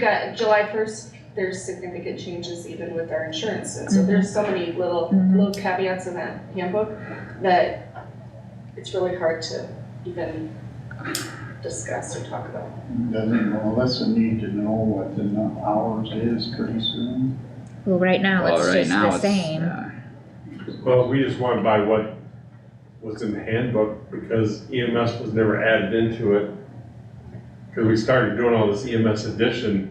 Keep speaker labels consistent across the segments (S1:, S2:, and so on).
S1: Got July first, there's significant changes even with our insurance, and so
S2: Mhm.
S1: there's so many little,
S2: Mhm.
S1: little caveats in that handbook that it's really hard to even discuss or talk about.
S3: Doesn't Melissa need to know what the nu- hours is pretty soon?
S2: Well, right now
S4: Well,
S2: it's
S4: right
S2: just
S4: now
S2: the
S4: it's-
S2: same.
S4: yeah.
S5: Well, we just went by what was in the handbook because EMS was never added into it. Cause we started doing all this E EMS addition,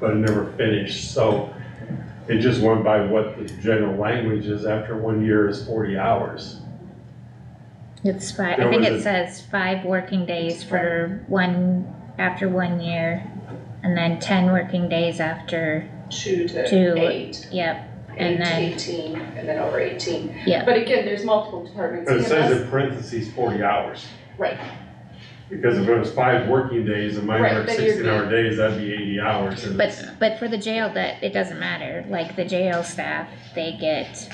S5: but it never finished, so it just went by what the general language is after one year is forty hours.
S2: It's five, I
S5: There
S2: think
S5: was
S2: it
S5: a-
S2: says five working days for one, after one year. And then ten working days after,
S1: Two
S2: Two.
S1: to eight,
S2: yep,
S1: eight
S2: And
S1: to
S2: then-
S1: eighteen, and then over eighteen.
S2: Yeah.
S1: But again, there's multiple departments.
S5: But it says
S1: EMS
S5: in parentheses forty hours,
S1: Right,
S5: because if it was five working days and mine
S1: Right,
S5: were
S1: then you'd
S5: sixteen hour days, that'd be eighty hours. and
S2: but, but for the jail that, it doesn't matter, like the jail staff, they get.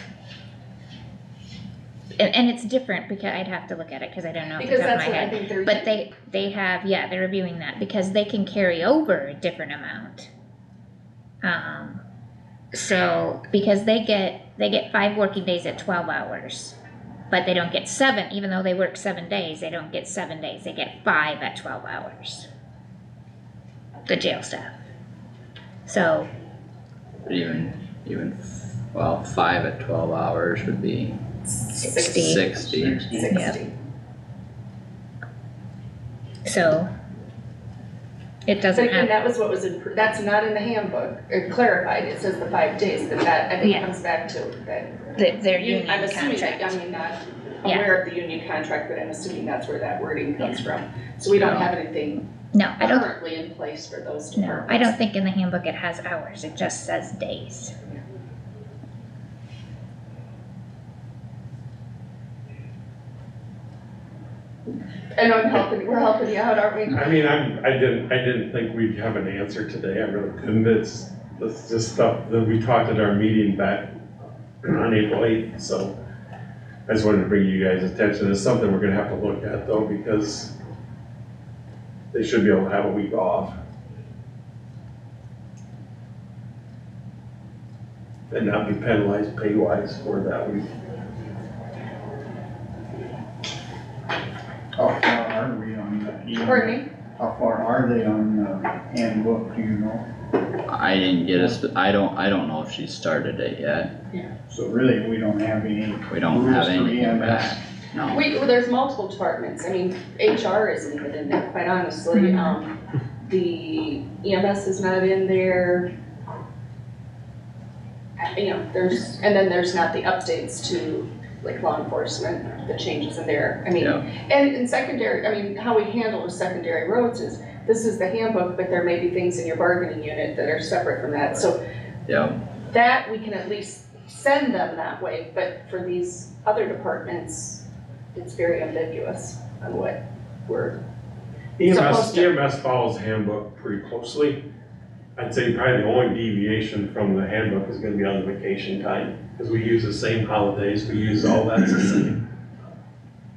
S2: And, and it's different because I'd have to look at it, cause I don't know off the
S1: because
S2: top of
S1: that's
S2: my
S1: what I
S2: head.
S1: think they're.
S2: But they, they have, yeah, they're reviewing that because they can carry over a different amount. Um, so, because they get, they get five working days at twelve hours. But they don't get seven, even though they work seven days, they don't get seven days, they get five at twelve hours. The jail staff. So,
S4: Even, even, well, five at twelve hours would be
S2: Sixty.
S4: sixty.
S1: Sixty.
S2: so. It doesn't
S1: But again,
S2: have,
S1: that was what was, in- that's not in the handbook, it clarified, it says the five days, but that, I think
S2: Yeah.
S1: comes back to that.
S2: th- their
S1: Un-
S2: union
S1: I'm assuming that, I
S2: contract.
S1: mean, not
S2: Yeah.
S1: aware of the union contract, but I'm assuming that's where that wording comes from. So we
S4: No.
S1: don't have anything
S2: No, I don't
S1: currently in place for those
S2: No,
S1: departments.
S2: I don't think in the handbook it has hours, it just says days.
S1: I know I'm helping, we're helping you out, aren't we?
S5: I mean, I'm, I didn't, I didn't think we'd have an answer today, I really didn't, it's, it's just stuff that we talked at our meeting back on April eighth, so. I just wanted to bring you guys' attention, it's something we're gonna have to look at though, because they should be able to have a week off. And not be penalized pay wise for that week.
S3: How far are we on the?
S1: Courtney,
S3: How far are they on the handbook, do you know?
S4: I didn't get a sp- I don't, I don't know if she started it yet.
S3: So really, we don't have any,
S4: We don't
S3: Rules
S4: have
S3: for
S4: anything
S3: EMS.
S4: back, no.
S1: we, well, there's multiple departments, I mean, HR isn't even in there, quite honestly,
S2: Mhm.
S1: um, the EMS is not in there. I- You know, there's, and then there's not the updates to, like, law enforcement, the changes in there, I mean,
S4: Yeah,
S1: And in secondary, I mean, how we handle with secondary roads is, this is the handbook, but there may be things in your bargaining unit that are separate from that. So
S4: yeah,
S1: that, we can at least send them that way, but for these other departments, it's very ambiguous on what we're, Supposed
S5: EMS,
S1: to.
S5: EMS E follows handbook pretty closely. I'd say probably the only deviation from the handbook is gonna be on the vacation time, because we use the same holidays, we use all that's the same.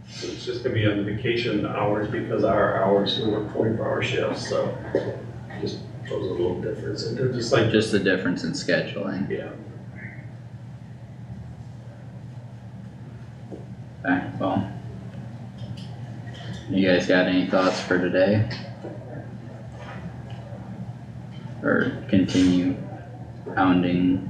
S5: So it's just gonna be on the vacation hours because our hours, we work twenty-four hour shifts, so just shows a little difference, and they're just like,
S4: just the difference in scheduling.
S5: yeah.
S4: Okay, well. You guys got any thoughts for today? Or continue pounding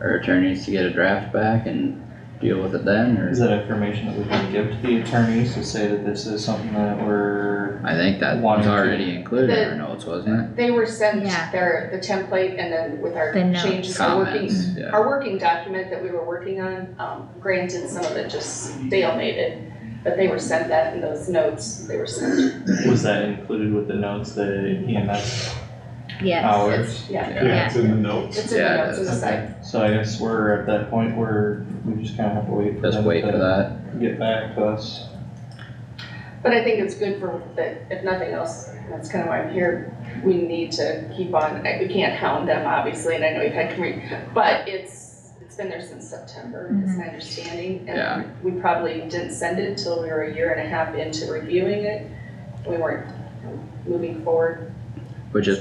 S4: our attorneys to get a draft back and deal with it then, or?
S6: Is that information that we can give to the attorneys to say that this is something that we're,
S4: I think that
S6: One
S4: was
S6: or two.
S4: already included in our
S1: The-
S4: notes, wasn't
S1: they were sent
S2: Yeah.
S1: their, the template and then with our
S2: The notes.
S4: it?
S1: changes, our working,
S4: Comments, yeah.
S1: our working document that we were working on, um, granted, some of it just stalemated, but they were sent that in those notes, they were sent,
S6: was that included with the notes, E the EMS
S2: Yes,
S6: hours?
S1: yeah.
S2: Yeah.
S5: It's in the notes.
S1: It's in the
S4: Yeah,
S1: notes in the
S4: that's-
S1: site.
S6: Okay, so I guess we're at that point where we just kinda have to wait for
S4: Just
S6: them
S4: wait for
S6: to
S4: that.
S6: get back to us.
S1: But I think it's good for, that if nothing else, that's kind of why I'm here, we need to keep on, I- we can't hound them, obviously, and I know you've had, commu- but it's, it's been there since September, is my understanding.
S4: Yeah.
S1: And we probably didn't send it until we were a year and a half into reviewing it, we weren't moving forward
S4: Which is